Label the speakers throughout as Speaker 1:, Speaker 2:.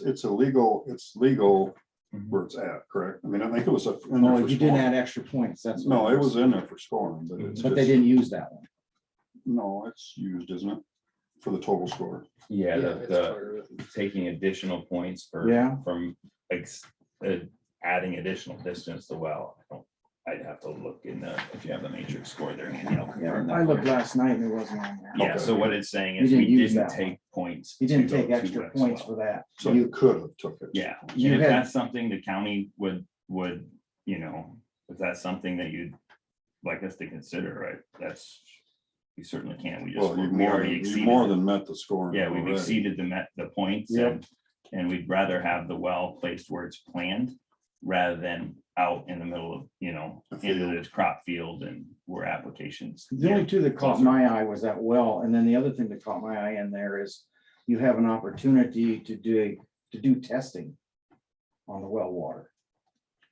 Speaker 1: it's illegal, it's legal
Speaker 2: Mhm.
Speaker 1: where it's at, correct? I mean, I think it was a. in there
Speaker 2: No,
Speaker 1: for
Speaker 2: you
Speaker 1: scoring.
Speaker 2: didn't add extra points, that's.
Speaker 1: No, it was in there for scoring, but it's.
Speaker 2: But they
Speaker 1: just-
Speaker 2: didn't use that one.
Speaker 1: No, it's used, isn't it? For the total score.
Speaker 3: Yeah,
Speaker 4: it's
Speaker 3: the,
Speaker 4: part of it.
Speaker 3: the taking additional points for.
Speaker 2: Yeah.
Speaker 3: From, like, uh, adding additional distance to well. I don't- I'd have to look in the, if you have the matrix score there. Andy, I'll confirm
Speaker 2: I
Speaker 3: that for
Speaker 2: looked
Speaker 3: you.
Speaker 2: last night and it wasn't on there.
Speaker 3: Yeah, so what it's saying is
Speaker 2: You
Speaker 3: we
Speaker 2: didn't use
Speaker 3: didn't
Speaker 2: that
Speaker 3: take points.
Speaker 2: You didn't
Speaker 3: to go
Speaker 2: take
Speaker 3: to
Speaker 2: extra
Speaker 3: X
Speaker 2: points
Speaker 3: well.
Speaker 2: for that.
Speaker 1: So you could have took it.
Speaker 3: Yeah, and
Speaker 2: You
Speaker 3: if
Speaker 2: had-
Speaker 3: that's something the county would, would, you know, if that's something that you'd like us to consider, right, that's. We certainly can't, we just,
Speaker 1: Well, you
Speaker 3: we
Speaker 1: more, than-
Speaker 3: already
Speaker 1: you more
Speaker 3: exceeded,
Speaker 1: than met the scoring.
Speaker 3: yeah, we've
Speaker 1: already.
Speaker 3: exceeded the met, the points
Speaker 2: Yep.
Speaker 3: and. And we'd rather have the well placed where it's planned, rather than out in the middle of, you know,
Speaker 1: A
Speaker 3: into
Speaker 1: field.
Speaker 3: this crop field and where applications.
Speaker 2: The only two that caught
Speaker 3: Closer.
Speaker 2: my eye was that well, and then the other thing that caught my eye in there is you have an opportunity to do, to do testing on the well water,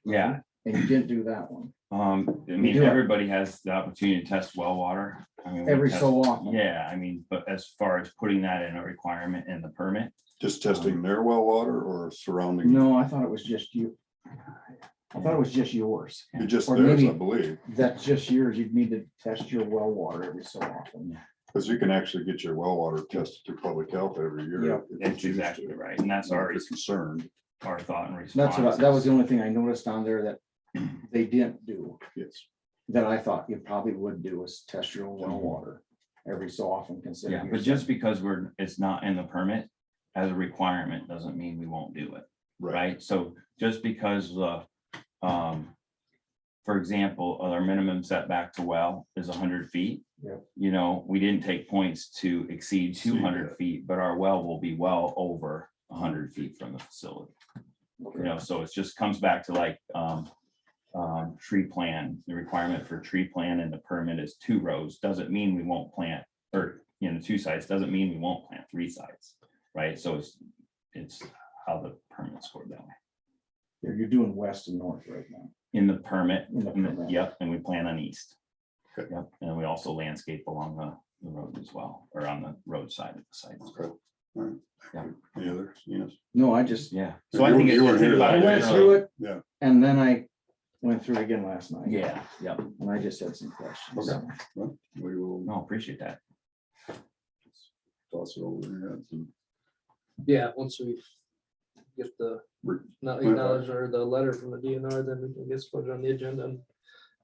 Speaker 3: Yeah,
Speaker 2: and you didn't do that one.
Speaker 3: um, I
Speaker 2: You
Speaker 3: mean,
Speaker 2: do it.
Speaker 3: everybody has the opportunity to test well water. I mean, we
Speaker 2: Every
Speaker 3: test-
Speaker 2: so often.
Speaker 3: Yeah, I mean, but as far as putting that in a requirement in the permit,
Speaker 1: Just testing their well water or surrounding,
Speaker 2: No, I thought it was just you. I thought it was just yours.
Speaker 1: you're just
Speaker 2: Or
Speaker 1: theirs, I
Speaker 2: maybe-
Speaker 1: believe,
Speaker 2: That's just yours. You'd need to test your well water every so often.
Speaker 1: because you can actually get your well water tested through public health every
Speaker 2: Yeah.
Speaker 1: year.
Speaker 3: that's exactly right, and that's our,
Speaker 1: Concerned,
Speaker 3: our thought and response.
Speaker 2: That's what, I- that was the only thing I noticed on there that they didn't do,
Speaker 1: yes.
Speaker 2: that I thought you probably would do is test your own well water every so often
Speaker 3: Mm-hmm. Yeah,
Speaker 2: considering.
Speaker 3: but just because we're, it's not in the permit as a requirement, doesn't mean we won't do it, right? So just because, uh, um, for example, our minimum setback to well is hundred feet.
Speaker 2: Yep.
Speaker 3: You know, we didn't take points to exceed
Speaker 1: Exceed
Speaker 3: two hundred
Speaker 1: that.
Speaker 3: feet, but our well will be well over hundred feet from the facility. you know, so it's just comes back to like, um, um, tree plan, the requirement for tree plan and the permit is two rows, doesn't mean we won't plant, or, you know, two sites, doesn't mean we won't plant three sites, right? So it's, it's how the permit scored that way.
Speaker 2: You're you're doing west and north right now.
Speaker 3: In the permit,
Speaker 2: In the
Speaker 3: in the-
Speaker 2: permit.
Speaker 3: yep, and we plan on east.
Speaker 1: Okay.
Speaker 3: Yep, and we also landscape along the, the road as well, or on the roadside of the site. as well.
Speaker 1: The others, yes.
Speaker 2: No, I just,
Speaker 3: Yeah.
Speaker 1: So
Speaker 3: So I
Speaker 1: you-
Speaker 3: think.
Speaker 1: you
Speaker 3: it's-
Speaker 1: were
Speaker 3: I
Speaker 1: here
Speaker 3: think
Speaker 1: that
Speaker 3: about
Speaker 2: I
Speaker 3: it
Speaker 1: day,
Speaker 2: went
Speaker 1: Yeah.
Speaker 2: through
Speaker 3: generally.
Speaker 2: it.
Speaker 1: Yeah.
Speaker 2: And then I went through it again last night.
Speaker 3: Yeah, yep.
Speaker 2: And I just had some questions.
Speaker 1: Okay. We will
Speaker 3: No, appreciate that.
Speaker 1: toss it over your heads and
Speaker 4: Yeah, once we get the
Speaker 1: re-
Speaker 4: not
Speaker 1: Okay.
Speaker 4: acknowledged or the letter from the DNR, then we can get put on the agenda and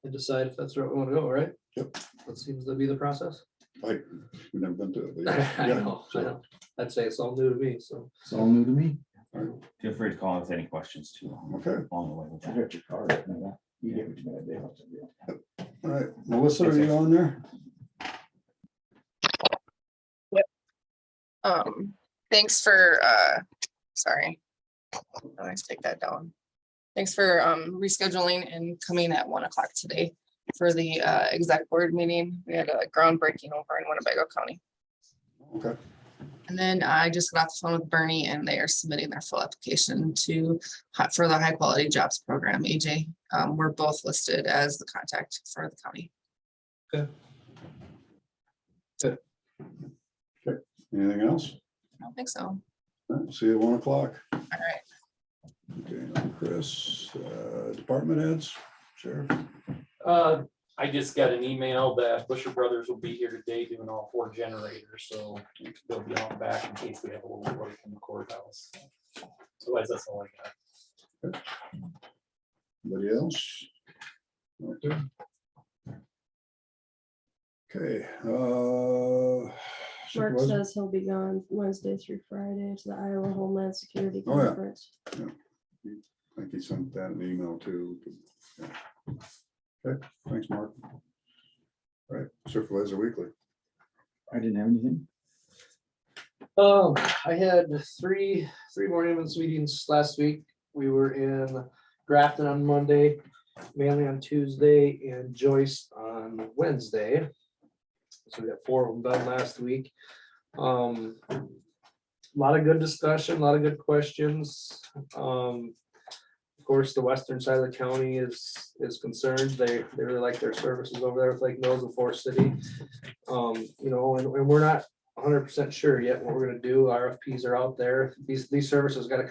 Speaker 4: and decide if that's where we want to go, right?
Speaker 1: Yep.
Speaker 4: That seems to be the process.
Speaker 1: Like, we've never been to it. but yeah,
Speaker 4: I
Speaker 1: yeah,
Speaker 4: know, I
Speaker 1: so,
Speaker 4: know. I'd say it's all new to me, so.
Speaker 2: It's all new to me.
Speaker 3: Feel free to call if any questions too. along
Speaker 1: Okay,
Speaker 3: along the way with
Speaker 2: I
Speaker 3: that.
Speaker 2: got your card. I know that. You gave it to me that day. I'll tell you.
Speaker 1: all right. Melissa, are you on there?
Speaker 5: Um, thanks for, uh, sorry. Let's take that down. Thanks for, um, rescheduling and coming at one o'clock today for the, uh, exec board meeting. We had a groundbreaking over in Winnebago County.
Speaker 1: Okay,
Speaker 5: And then I just got off the phone with Bernie and they are submitting their full application to, hi- for the high quality jobs program, AJ. Um, we're both listed as the contact for the county.
Speaker 1: anything else?
Speaker 5: I don't think so.
Speaker 1: All right, See you at one o'clock. All
Speaker 5: right.
Speaker 1: Okay, now Chris, uh, department heads, sheriff.
Speaker 6: Uh, I just got an email that Busher Brothers will be here today doing all four generators, so they'll be on back in case we have a little work in the courthouse. Otherwise, that's all I got.
Speaker 1: Anybody else? Right there. Okay, uh.
Speaker 7: Mark
Speaker 1: supervisor?
Speaker 7: says he'll be gone Wednesday through Friday to the Iowa Homeland Security
Speaker 1: Oh, yeah.
Speaker 7: Conference.
Speaker 1: I think he sent that an email too. Yeah. Okay, thanks, Mark. All right, supervisor weekly.
Speaker 2: I didn't have anything.
Speaker 4: Um, I had three, three more ambulance meetings last week. We were in Grafton on Monday, Manly on Tuesday, and Joyce on Wednesday. So we got four of them done last week. Um, lot of good discussion, a lot of good questions. Um, of course, the western side of the county is, is concerned. They, they really like their services over there with Lake Mills and Forest City. Um, you know, and, and we're not hundred percent sure yet what we're gonna do. RFPs are out there. These, these services gotta